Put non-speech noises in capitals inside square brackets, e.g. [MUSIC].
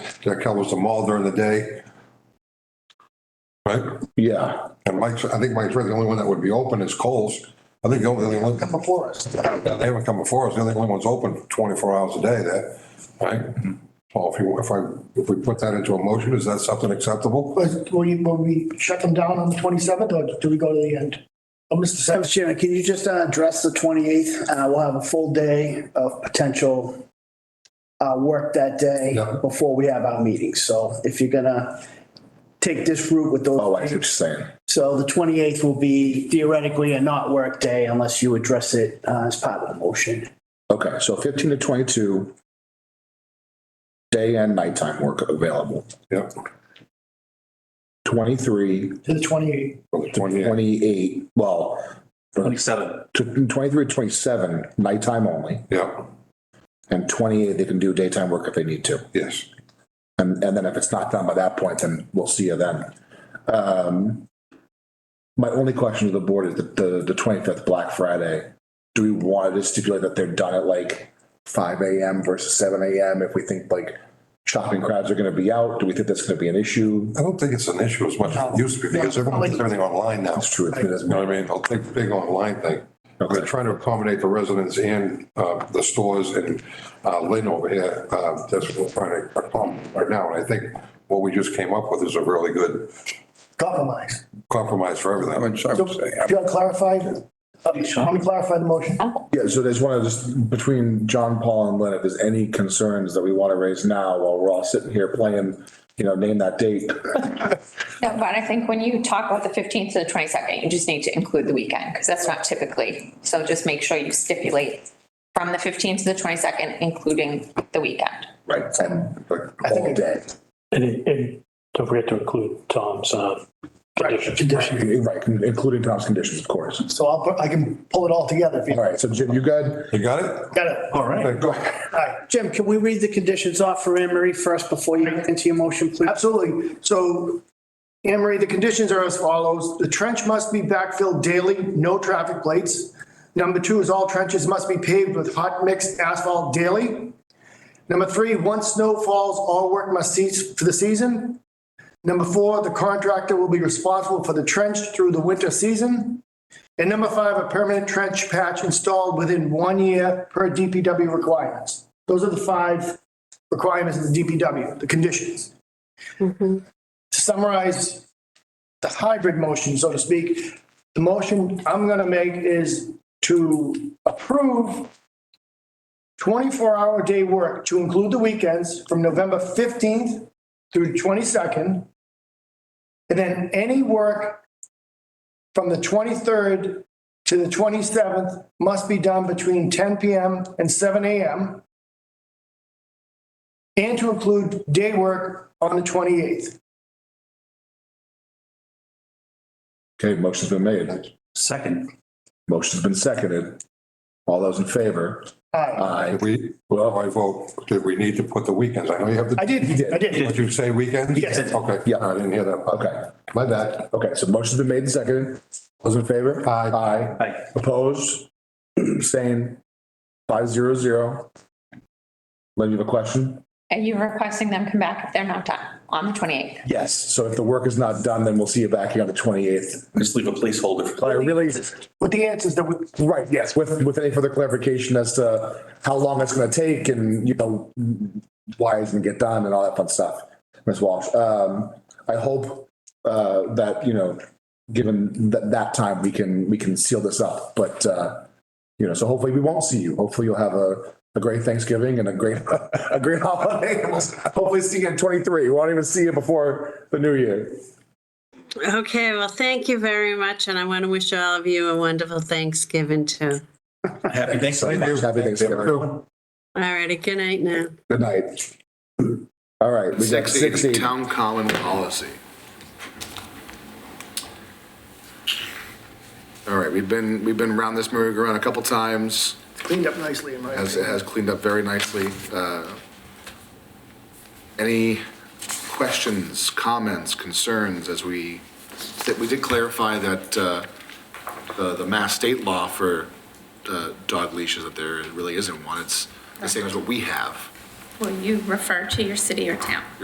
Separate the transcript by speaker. Speaker 1: that covers them all during the day. Right?
Speaker 2: Yeah,
Speaker 1: And Mike's, I think Mike's right, the only one that would be open is Coles. I think the only one,
Speaker 3: come before us.
Speaker 1: they haven't come before us, the only one's open twenty-four hours a day there,
Speaker 2: Mm-hmm.
Speaker 1: right? So if you, if I, if we put that into a motion, is that something acceptable?
Speaker 3: But will you, will we shut them down on the twenty-seventh or do we go to the end? Oh, Mr. Savage,
Speaker 4: Mr. Chairman, can you just uh, address the 28th? Uh, We'll have a full day of potential uh, work that day
Speaker 1: Yeah.
Speaker 4: before we have our meetings. So if you're gonna take this route with
Speaker 2: oh, I
Speaker 4: those,
Speaker 2: see what you're saying.
Speaker 4: so the 28th will be theoretically a not work day unless you address it uh, as part of the motion.
Speaker 2: Okay, so fifteen to twenty-two. Day and nighttime work available.
Speaker 1: Yep.
Speaker 2: Twenty-three,
Speaker 3: to the twenty-eighth,
Speaker 2: twenty-eight, well,
Speaker 5: Twenty-seven.
Speaker 2: tw- twenty-three, twenty-seven, nighttime only.
Speaker 1: Yeah,
Speaker 2: And twenty-eight, they can do daytime work if they need to.
Speaker 1: yes.
Speaker 2: And, and then if it's not done by that point, then we'll see you then. Um, My only question to the board is the, the, the twenty-fifth Black Friday. Do we want to stipulate that they're done at like five AM versus seven AM? If we think like shopping crowds are gonna be out, do we think that's gonna be an issue?
Speaker 1: I don't think it's an issue as much as it used to be because everyone does everything online now.
Speaker 2: That's true. It's been
Speaker 1: You know what I mean? I'll take the big online thing. We're
Speaker 2: Okay.
Speaker 1: trying to accommodate the residents and uh, the stores and uh, Lynn over here. uh, That's what we're trying to accommodate right now. And I think what we just came up with is a really good
Speaker 3: compromise.
Speaker 1: compromise for everything.
Speaker 3: So, do you want to clarify? Let me clarify the motion.
Speaker 2: Yeah, so there's one of just between John, Paul and Lynn, if there's any concerns that we want to raise now while we're all sitting here playing, you know, name that date.
Speaker 6: No, but I think when you talk about the fifteenth to the twenty-second, you just need to include the weekend, because that's not typically, so just make sure you stipulate from the fifteenth to the twenty-second, including the weekend.
Speaker 2: Right. And like all day.
Speaker 7: And, it- and don't forget to include Tom's, uh, conditions.
Speaker 3: Condition.
Speaker 2: Right, including Tom's conditions, of course.
Speaker 3: So I'll, put- I can pull it all together if you
Speaker 2: All right, so Jim, you good?
Speaker 1: You got it?
Speaker 3: got it.
Speaker 7: All right.
Speaker 1: Okay, Go ahead.
Speaker 3: All right.
Speaker 4: Jim, can we read the conditions off for Anne Marie first before you get into your motion, please?
Speaker 3: Absolutely. So Anne Marie, the conditions are as follows. The trench must be backfilled daily, no traffic plates. Number two is all trenches must be paved with hot mixed asphalt daily. Number three, once snow falls, all work must cease for the season. Number four, the contractor will be responsible for the trench through the winter season. And number five, a permanent trench patch installed within one year per DPW requirements. Those are the five requirements of the DPW, the conditions to summarize the hybrid motion, so to speak, the motion I'm gonna make is to approve twenty-four hour day work to include the weekends from November fifteenth through twenty-second. And then any work from the twenty-third to the twenty-seventh must be done between ten PM and seven AM. And to include day work on the twenty-eighth.
Speaker 2: Okay, motion's been made.
Speaker 5: Second.
Speaker 2: Motion's been seconded. All those in favor?
Speaker 3: Aye.
Speaker 2: Aye.
Speaker 1: Did we,
Speaker 2: Well,
Speaker 1: I vote, did we need to put the weekends? I know you have
Speaker 3: I
Speaker 1: the,
Speaker 3: did, I did.
Speaker 1: did you say weekends?
Speaker 3: Yes.
Speaker 1: Okay.
Speaker 2: Yeah.
Speaker 1: I didn't hear that.
Speaker 2: okay,
Speaker 1: My bad.
Speaker 2: okay, so motion's been made and seconded. Those in favor?
Speaker 1: Aye.
Speaker 2: Aye.
Speaker 5: Aye.
Speaker 2: Opposed? [CLEARS THROAT] Abstained? Five zero zero. Lynn, you have a question?
Speaker 6: Are you requesting them come back if they're not done on the twenty-eighth?
Speaker 2: Yes. So if the work is not done, then we'll see you back here on the twenty-eighth.
Speaker 5: Just leave a placeholder.
Speaker 2: But I really,
Speaker 3: With the answers that we,
Speaker 2: right, yes, with, with any further clarification as to how long it's gonna take and, you know, why it's gonna get done and all that fun stuff, Ms. Walsh. Um, I hope, uh, that, you know, given that, that time, we can, we can seal this up, but, uh, you know, so hopefully we won't see you. Hopefully you'll have a, a great Thanksgiving and a great, [LAUGHS] a great holiday. [LAUGHS] and We'll Hopefully see you in twenty-three. We won't even see you before the new year.
Speaker 8: Okay, well, thank you very much, and I want to wish all of you a wonderful Thanksgiving too.
Speaker 5: Happy Thanksgiving.
Speaker 2: Happy Thanksgiving.
Speaker 8: All righty, good night now.
Speaker 2: Good night. All right, we got
Speaker 9: Six
Speaker 2: six
Speaker 9: eighty,
Speaker 2: eight.
Speaker 9: town common policy. All right, we've been, we've been around this merry-go-round a couple times,
Speaker 3: cleaned up nicely in my
Speaker 9: has,
Speaker 3: opinion.
Speaker 9: has cleaned up very nicely. Uh, Any questions, comments, concerns as we, that we did clarify that uh, the, the mass state law for uh, dog leashes, that there really isn't one, it's the same as what we have.
Speaker 6: Will you refer to your city or town?